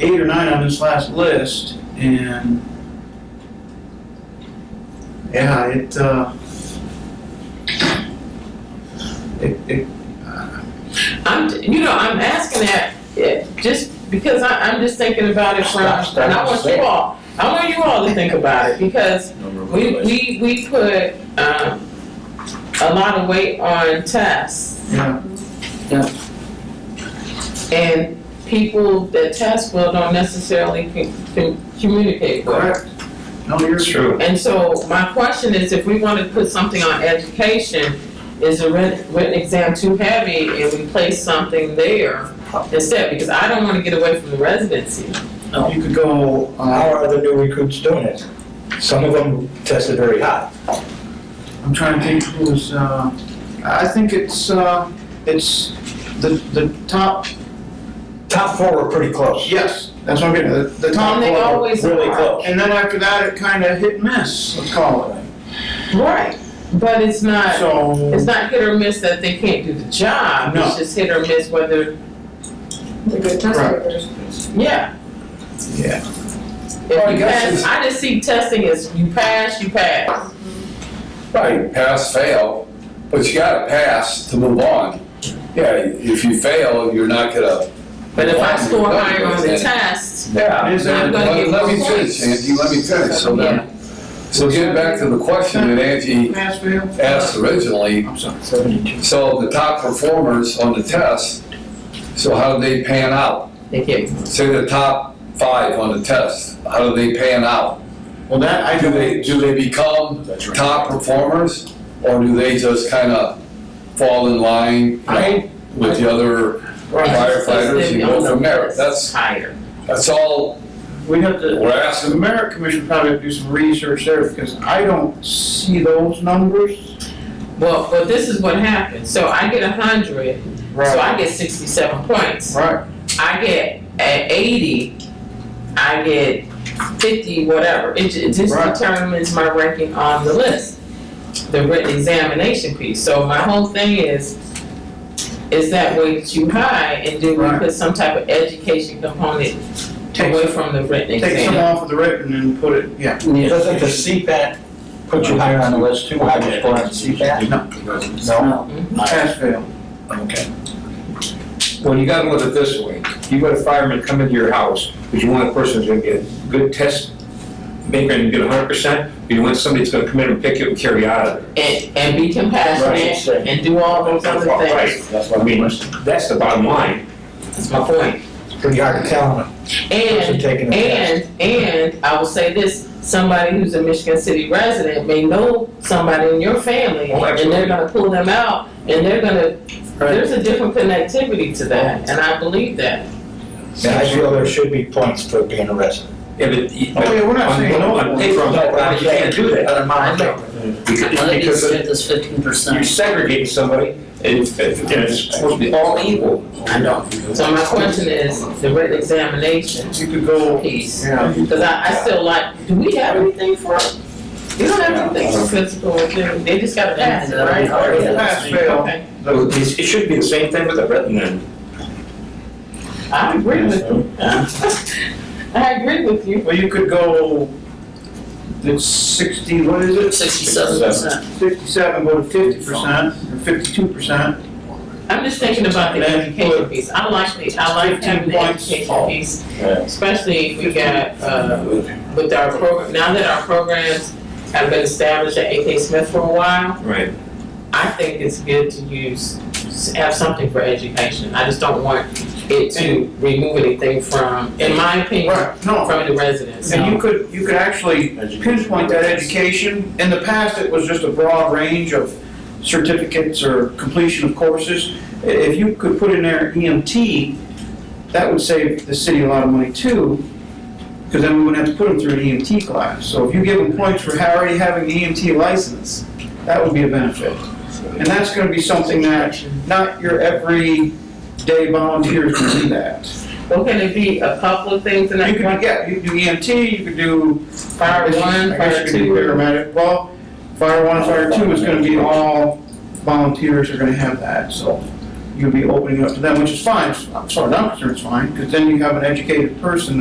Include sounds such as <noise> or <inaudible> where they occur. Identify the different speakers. Speaker 1: eight or nine on this last list, and yeah, it, uh, it, it,
Speaker 2: I'm, you know, I'm asking that, yeah, just because I, I'm just thinking about it from,
Speaker 3: Stop, stop,
Speaker 2: and I want
Speaker 3: stop.
Speaker 2: you all, I want you all to think about it, because we, we, we put, um, a lot of weight on tests,
Speaker 1: yeah,
Speaker 2: and people that test well don't necessarily can, can communicate well.
Speaker 1: correct. No, you're
Speaker 3: It's true.
Speaker 2: And so my question is, if we want to put something on education, is the writ- written exam too heavy and we place something there instead? Because I don't want to get away from the residency.
Speaker 1: You could go,
Speaker 3: How
Speaker 1: uh,
Speaker 3: are the new recruits doing it? Some of them tested very high.
Speaker 1: I'm trying to think who was, uh, I think it's, uh, it's the, the top,
Speaker 3: Top four were pretty close.
Speaker 1: yes, that's what I'm getting, at, the, the top
Speaker 2: And they
Speaker 1: four.
Speaker 2: always
Speaker 3: Really
Speaker 2: are.
Speaker 3: close.
Speaker 1: And then after that, it kind of hit and miss, let's call it.
Speaker 2: Right, but it's not, it's
Speaker 1: So,
Speaker 2: not hit or miss that they can't do the job.
Speaker 1: No.
Speaker 2: It's just hit or miss whether,
Speaker 4: The good test
Speaker 1: Right.
Speaker 4: takers.
Speaker 2: yeah.
Speaker 1: Yeah.
Speaker 3: Well, Oh, I
Speaker 2: If you
Speaker 3: guess
Speaker 2: pass,
Speaker 3: it's-
Speaker 2: I just see testing as you pass, you pass.
Speaker 5: Right, pass, fail, but you gotta pass to move on. Yeah, if you fail, you're not gonna.
Speaker 2: But if I
Speaker 5: move on,
Speaker 2: score
Speaker 5: you're
Speaker 2: higher on the
Speaker 5: gonna-
Speaker 2: test,
Speaker 5: Yeah.
Speaker 1: Is that-
Speaker 5: Let-
Speaker 2: I'm gonna get
Speaker 5: Let me
Speaker 2: more
Speaker 5: finish,
Speaker 2: points.
Speaker 5: Angie, let me finish, so
Speaker 2: yeah,
Speaker 5: then, so getting back to the question that Angie
Speaker 1: Mansfield?
Speaker 5: asked originally,
Speaker 1: I'm sorry.
Speaker 3: Seventy-two.
Speaker 5: so the top performers on the test, so how do they pan out?
Speaker 2: they get
Speaker 5: Say the top five on the test, how do they pan out?
Speaker 1: Well, that, I
Speaker 5: Do they,
Speaker 1: do,
Speaker 5: do they become top performers, or do they just kinda fall in line? you know,
Speaker 2: I-
Speaker 5: With the other firefighters and go from there, that's,
Speaker 2: higher.
Speaker 5: that's all
Speaker 1: we have to,
Speaker 5: we're
Speaker 1: so
Speaker 5: asking.
Speaker 1: the merit commission probably have to do some research there, because I don't see those numbers.
Speaker 2: Well, but this is what happened, so I get a hundred, so I get sixty-seven points.
Speaker 1: Right,
Speaker 2: I get at eighty, I get fifty, whatever, it, ju- it just
Speaker 1: Right.
Speaker 2: determines my ranking on the list. The written examination piece, so my whole thing is, is that way too high, and do we
Speaker 1: Right.
Speaker 2: put some type of education component
Speaker 1: Take-
Speaker 2: away from the written exam?
Speaker 1: take some off of the written and put it, yeah.
Speaker 3: Doesn't the CPAT put you higher on the list too? Higher score on CPAT? No.
Speaker 1: Pass fail.
Speaker 3: Okay.
Speaker 6: Well, you gotta look at it this way. You got a fireman come into your house, but you want a person who's gonna get a good test maker and get hundred percent, but you want somebody that's gonna come in and pick you and carry you out of there.
Speaker 2: and, and be
Speaker 3: Right,
Speaker 2: compassionate
Speaker 3: sure.
Speaker 2: and do all those other
Speaker 6: Right,
Speaker 2: things.
Speaker 3: That's
Speaker 6: I mean, that's the bottom line.
Speaker 2: That's my point.
Speaker 3: Pretty hard to tell them. Person
Speaker 2: And,
Speaker 3: taking a test.
Speaker 2: and, and I will say this, somebody who's a Michigan City resident may know somebody in your family
Speaker 6: Oh,
Speaker 2: and they're
Speaker 6: absolutely.
Speaker 2: gonna pull them out and they're gonna, there's a different connectivity to that and I believe that.
Speaker 3: Yeah, I feel there should be points for being a resident.
Speaker 6: Yeah, but. you-
Speaker 1: Oh, yeah, we're not
Speaker 6: on-
Speaker 1: saying no.
Speaker 6: On paper, on that line, you can't do that.
Speaker 3: Out of mind.
Speaker 6: Because because
Speaker 7: get this fifteen
Speaker 6: you're
Speaker 7: percent.
Speaker 6: segregating somebody and it's, and it's supposed to be all equal.
Speaker 2: I know. So my question is, the written examination
Speaker 1: You could go,
Speaker 2: piece,
Speaker 1: yeah.
Speaker 2: cause I, I still like, do we have anything for, we don't have anything for physical, they just gotta pass it, right?
Speaker 1: Pass fail.
Speaker 2: Okay.
Speaker 6: So it's- It should be the same thing with the written then.
Speaker 2: I agree with you. <laughs> I agree with you.
Speaker 1: Well, you could go, it's sixty, what is it?
Speaker 7: Sixty-seven percent.
Speaker 1: Fifty-seven, go to fifty percent, or fifty-two percent.
Speaker 2: I'm just thinking about the education piece. I like the, I like having the education piece, especially if we got, uh, with our program, now that our programs have been established at AK Smith for a while,
Speaker 6: Right.
Speaker 2: I think it's good to use, have something for education. I just don't want it to remove anything from, in my opinion,
Speaker 1: Right, no,
Speaker 2: from the residents.
Speaker 1: And you could, you could actually pinpoint that education. In the past, it was just a broad range of certificates or completion of courses. I- If you could put in there EMT, that would save the city a lot of money too, because then we wouldn't have to put them through an EMT class. So if you give them points for ha- already having the EMT license, that would be a benefit. And that's gonna be something that not your everyday volunteer can do that.
Speaker 2: Well, can it be a couple of things in
Speaker 1: You
Speaker 2: that
Speaker 1: could,
Speaker 2: one?
Speaker 1: yeah, you could do EMT, you could do
Speaker 2: Fire one,
Speaker 1: I guess Oh,
Speaker 2: fire
Speaker 1: you could do
Speaker 2: two.
Speaker 1: paramedic. Well, fire one, fire two is gonna be all volunteers are gonna have that, so. you'll be opening it up to them, which is fine, as far as I'm concerned, it's fine, because then you have an educated person